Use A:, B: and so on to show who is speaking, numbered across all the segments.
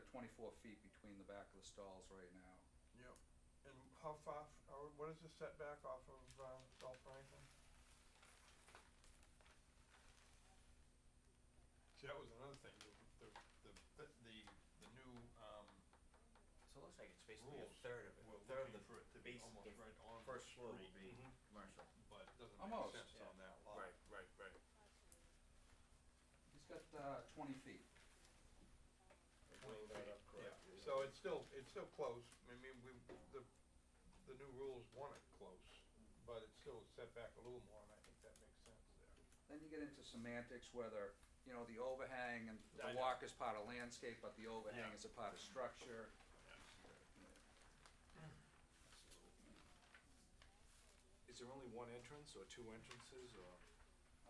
A: twenty-four feet between the back of the stalls right now.
B: Yep. And how far, f- or what is the setback off of, uh, South Franklin? See, that was another thing, the, the, the, the, the new, um,
C: So it looks like it's basically a
B: rules.
C: third of it,
B: were
C: a third of
B: looking
C: the,
B: for it to
C: the
B: be
C: base, Mm-hmm.
B: Almost
C: the
B: right on the
C: first floor
B: street,
C: will be
D: Mhm.
C: commercial.
B: but it doesn't make
A: Almost.
B: sense
C: Yeah.
B: on that lot.
D: Right, right, right.
A: He's got, uh, twenty feet.
D: Clean that up
B: Yeah,
D: correctly.
B: so it's still, it's still close, I mean, we, the, the new rules want it close, but it's still set back a little more, and I think that makes sense there.
A: Then you get into semantics, whether, you know, the overhang and
B: I
A: the
B: know.
A: walk is part of landscape, but the overhang
B: Yeah.
A: is a part of structure.
D: Is there only one entrance or two entrances or?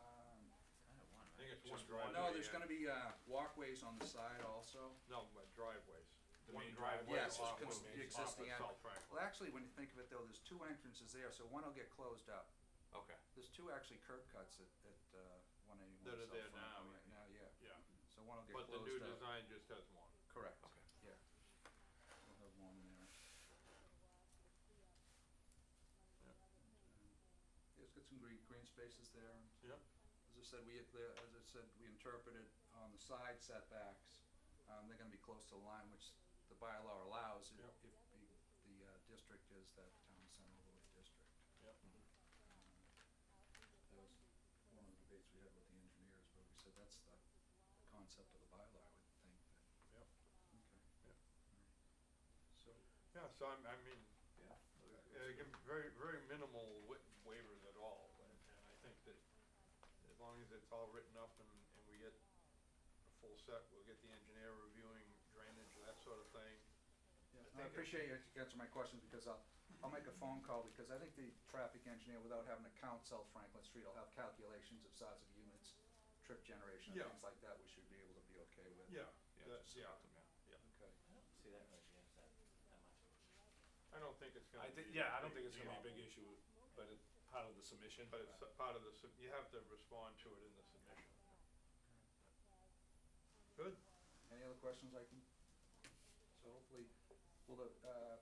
A: Um,
C: Kinda one,
B: I
C: right?
B: think it's
D: Just
B: one driveway.
D: one.
A: No, there's
D: yeah.
A: gonna be, uh, walkways on the side also.
B: No, but driveways.
D: The main driveway
A: Yes,
D: off
A: it's
D: Woodmain.
A: cons- the existing.
B: Off of
A: en-
B: South Franklin.
A: Well, actually, when you think of it though, there's two entrances there, so one will get closed up.
D: Okay.
A: There's two actually curb cuts at, at, uh, one
B: That
A: eighty-one
B: are
A: South
B: there
A: Franklin
B: now,
A: right now, yeah.
B: Yeah,
A: So one will get
B: but the
A: closed up.
B: new design just has one.
A: Correct,
D: Okay.
A: yeah. We'll have one there. Yeah, It's got some green, green spaces there.
B: Yep.
A: As I said, we, as I said, we interpreted on the side setbacks, um, they're gonna be close to the line, which the bylaw allows if,
B: Yep.
A: if the, the, uh, district is that town center overlay district. Um,
B: Yep.
A: That was one of the debates we had with the engineers, but we said that's the concept of the bylaw, I would think, that.
B: Yep.
A: Okay.
B: Yep.
A: So,
B: Yeah, so I'm, I mean,
D: Yeah.
B: uh, again, very, very minimal wa- waivers at all, and, and I think that as long as it's all written up and, and we get a full set, we'll get the engineer reviewing drainage, that sort of thing.
A: yeah,
B: I
A: I
B: think it-
A: appreciate you answering my questions, because I'll, I'll make a phone call, because I think the traffic engineer, without having to count South Franklin Street, will have calculations of size of units, trip generation, and
B: Yeah.
A: things like that, we should be able to be okay with.
B: Yeah,
D: Yeah,
B: that,
D: just
B: yeah,
D: about them, yeah.
A: Okay.
C: I don't see that really against that, that much.
B: I don't think it's gonna
D: I
B: be.
D: think,
B: a
D: yeah, I don't
B: big
D: think it's gonna
B: deal.
D: be a big issue, but it's part of the submission.
B: But it's a part of the, sub- you have to respond to it in the submission. Good,
A: Any other questions I can, so hopefully, will the, uh,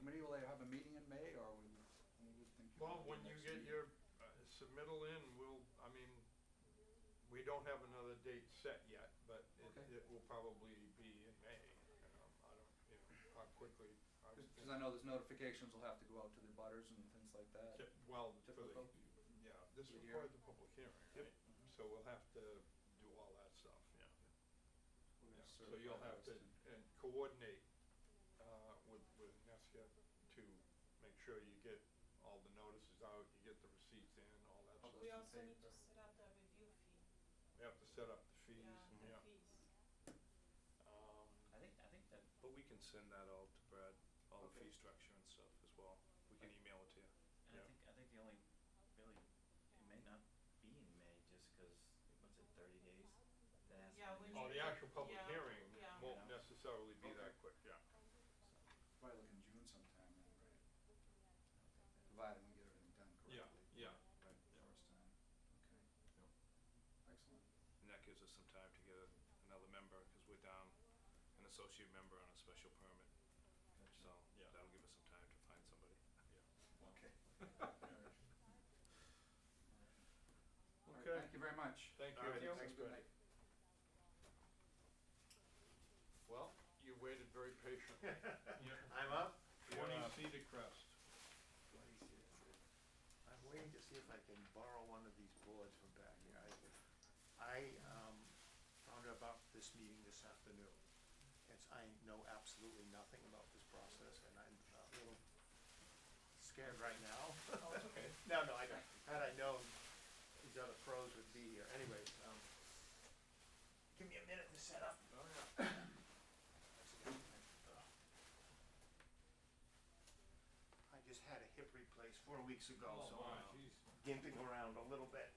A: committee, will they have a meeting in May, or we, we would think?
B: well,
A: about the
B: when you
A: next
B: get
A: meeting?
B: your uh, submittal in, we'll, I mean, we don't have another date set yet, but it,
A: Okay.
B: it will probably be in May. Um, I don't, you know, how quickly, I was
A: Because I know there's notifications will have to go out to the butters and things like that.
B: thinking, well, for the,
A: Typical.
B: yeah, this
A: The year.
B: requires a public hearing,
D: Yep.
B: right? So we'll have to do all that stuff, yeah.
A: We're gonna
B: Yeah, So
A: certify
B: you'll have
A: those
B: to,
A: and-
B: and coordinate, uh, with, with Nesca to make sure you get all the notices out, you get the receipts in, all that
A: All
B: stuff.
A: those
E: We
A: in
E: also need
A: favor?
E: to set up the review fee,
B: We have to set up the fees,
E: yeah,
B: yeah.
E: the fees.
B: Um,
C: I think, I think that,
D: But we can send that all to Brad, all the
A: Okay.
D: fee structure and stuff as well. We can email it to you.
C: and I
B: Yeah.
C: think, I think the only, really, it may not be in May, just cause, what's it, thirty days? That has to
E: Yeah,
C: be
E: we
C: in
B: Oh,
E: need
B: the
C: May.
B: actual public
E: Yeah,
B: hearing
E: yeah.
B: won't necessarily be that
A: Okay.
B: quick, yeah.
A: Probably like in June sometime, then, right? Provided we get everything done
B: Yeah,
A: correctly.
B: yeah.
A: Right,
B: Yeah.
A: first time, okay. Excellent.
D: And that gives us some time to get a, another member, cause we're down an associate member on a special permit. So
B: Yeah.
D: that'll give us some time to find somebody.
A: Okay. All right,
B: Okay.
A: Thank you very much.
B: Thank
D: All right,
B: you.
A: Thanks, good night.
B: Well, you waited very patiently.
F: I'm up.
B: Twenty
F: Yeah.
B: Cedar Crest.
F: I'm waiting to see if I can borrow one of these boards from back here. I, I um, found out about this meeting this afternoon. It's, I know absolutely nothing about this process and I'm a little scared right now.
B: Oh, it's okay.
F: No, no, I don't. Had I known these other pros would be here. Anyways, um, give me a minute to set up.
B: Oh, yeah.
F: I just had a hip replaced four weeks ago, so
B: wow. Oh,
F: uh, I'm gimping around a little bit.